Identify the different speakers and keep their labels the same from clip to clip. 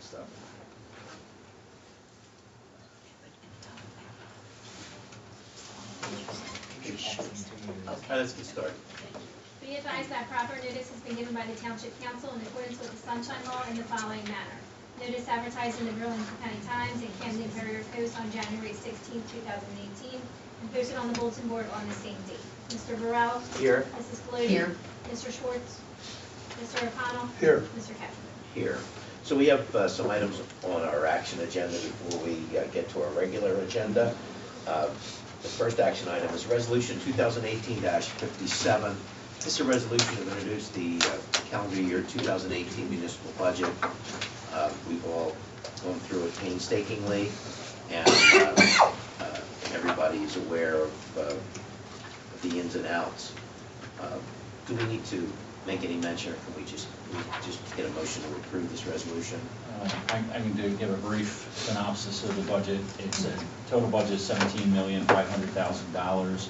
Speaker 1: so. All right, let's get started.
Speaker 2: Be advised that proper notice has been given by the Township Council in accordance with the Sunshine Law in the following manner. Notice advertised in the Burlington County Times and Camden Courier Post on January 16, 2018, and posted on the bulletin board on the same date. Mr. Burrell?
Speaker 1: Here.
Speaker 2: Mrs. Flode?
Speaker 3: Here.
Speaker 2: Mr. Schwartz? Mr. O'Connell?
Speaker 4: Here.
Speaker 2: Mr. Ketchum?
Speaker 5: here. So we have uh, some items on our action agenda before we uh, get to our regular agenda. Uh, The first action item is Resolution 2018-57. This is a resolution to introduce the uh, calendar year 2018 municipal budget. Uh, We've all gone through it painstakingly, and uh, uh, everybody is aware of uh, the ins and outs. Uh, Do we need to make any mention, or can we just, we just get a motion to approve this resolution?
Speaker 6: Uh, I I can do, give a brief synopsis of the budget. It's a total budget of seventeen million, five hundred thousand dollars.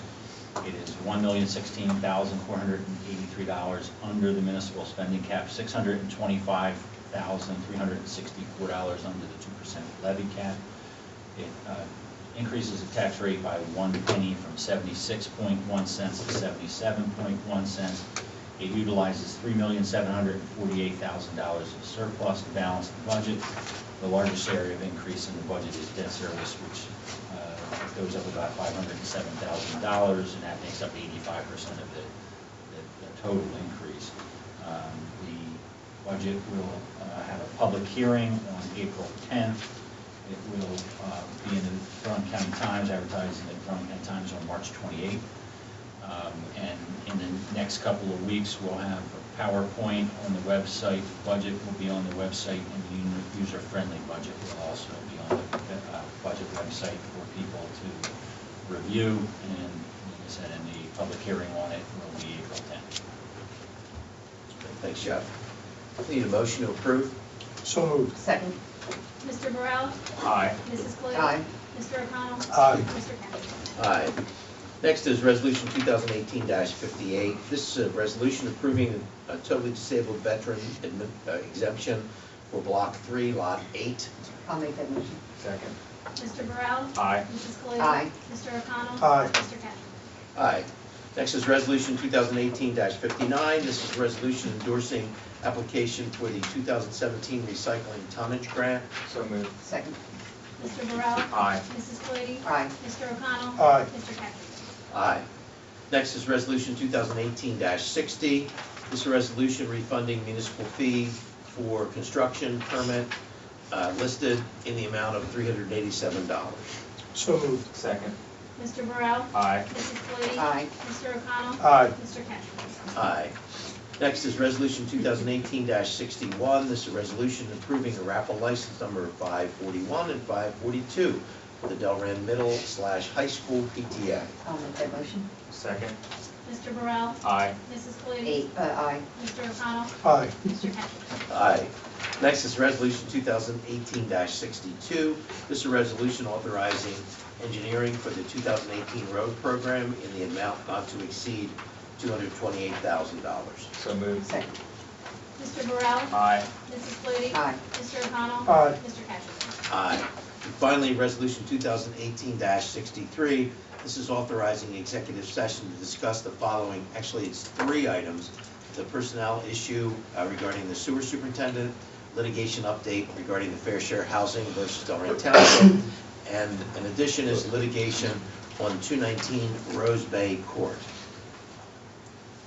Speaker 6: It is one million, sixteen thousand, four hundred and eighty-three dollars under the municipal spending cap, six hundred and twenty-five thousand, three hundred and sixty-four dollars under the two percent levy cap. It uh, increases the tax rate by one penny from 76.1 cents to 77.1 cents. It utilizes $3,748,000 of surplus to balance the budget. The largest area of increase in the budget is debt service, which uh, goes up about $507,000, and that makes up 85% of the the- the total increase. Um, The budget will uh, have a public hearing on April 10th. It will uh, be in the Brown County Times, advertised in the Brown County Times on March 28th. Um, And in the next couple of weeks, we'll have a PowerPoint on the website, The budget will be on the website, and the u- user-friendly budget will also be on the uh, budget website for people to review. And like I said, and the public hearing on it will be April 10th.
Speaker 5: Thanks, Jeff. We Need a motion to approve?
Speaker 4: So moved.
Speaker 3: Second.
Speaker 2: Mr. Burrell?
Speaker 6: Aye.
Speaker 2: Mrs. Flode?
Speaker 3: Aye.
Speaker 2: Mr. O'Connell?
Speaker 4: Aye.
Speaker 2: Mr. Ketchum?
Speaker 5: Aye. Next is Resolution 2018-58. This is a resolution approving a totally disabled veteran admi- uh, exemption for Block 3, Lot 8.
Speaker 3: I'll make that motion.
Speaker 6: Second.
Speaker 2: Mr. Burrell?
Speaker 6: Aye.
Speaker 2: Mrs. Flode?
Speaker 3: Aye.
Speaker 2: Mr. O'Connell?
Speaker 4: Aye.
Speaker 2: Mr. Ketchum?
Speaker 5: Aye. Next is Resolution 2018-59. This is a resolution endorsing application for the 2017 recycling tonnage grant.
Speaker 1: So moved.
Speaker 3: Second.
Speaker 2: Mr. Burrell?
Speaker 6: Aye.
Speaker 2: Mrs. Cloete?
Speaker 3: Aye.
Speaker 2: Mr. O'Connell?
Speaker 4: Aye.
Speaker 2: Mr. Cattrick?
Speaker 5: Aye. Next is Resolution 2018-60. This is a resolution refunding municipal fee for construction permit uh, listed in the amount of $387.
Speaker 4: So moved.
Speaker 1: Second.
Speaker 2: Mr. Burrell?
Speaker 1: Aye.
Speaker 2: Mrs. Cloete?
Speaker 3: Aye.
Speaker 2: Mr. O'Connell?
Speaker 4: Aye.
Speaker 2: Mr. Cattrick?
Speaker 5: Aye. Next is Resolution 2018-61. This is a resolution approving a raffle license number 541 and 542 for the Delran Middle slash High School PTA.
Speaker 3: I'll make that motion.
Speaker 1: Second.
Speaker 2: Mr. Burrell?
Speaker 1: Aye.
Speaker 2: Mrs. Cloete?
Speaker 3: Eight, uh, aye.
Speaker 2: Mr. O'Connell?
Speaker 4: Aye.
Speaker 2: Mr. Cattrick?
Speaker 5: Aye. Next is Resolution 2018-62. This is a resolution authorizing engineering for the 2018 road program in the amount not to exceed $228,000.
Speaker 1: So moved.
Speaker 3: Second.
Speaker 2: Mr. Burrell?
Speaker 1: Aye.
Speaker 2: Mrs. Cloete?
Speaker 3: Aye.
Speaker 2: Mr. O'Connell?
Speaker 4: Aye.
Speaker 2: Mr. Cattrick?
Speaker 5: Aye. And Finally, Resolution 2018-63. This is authorizing executive session to discuss the following, actually, it's three items. The personnel issue uh, regarding the sewer superintendent, litigation update regarding the fair share housing versus Delran Township, and in addition is litigation on 219 Rose Bay Court.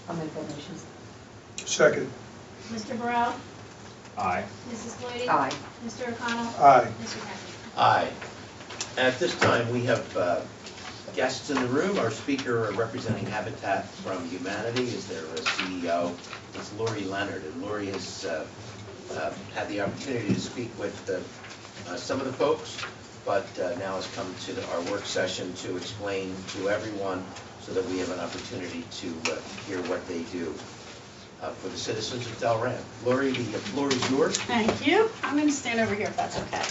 Speaker 3: I'll make that motion.
Speaker 4: Second.
Speaker 2: Mr. Burrell?
Speaker 1: Aye.
Speaker 2: Mrs. Cloete?
Speaker 3: Aye.
Speaker 2: Mr. O'Connell?
Speaker 4: Aye.
Speaker 2: Mr. Cattrick?
Speaker 5: Aye. At this time, we have uh, guests in the room. Our speaker representing Habitat from Humanity is their uh, CEO. It's Lori Leonard, and Lori has uh, uh, had the opportunity to speak with uh, uh, some of the folks, but uh, now has come to our work session to explain to everyone so that we have an opportunity to uh, hear what they do uh, for the citizens of Delran. Lori, the floor is yours.
Speaker 7: Thank you. I'm going to stand over here if that's okay.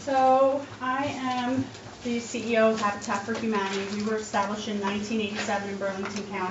Speaker 7: So I E am the CEO of Habitat for Humanity. We were established in 1987 in Burlington County.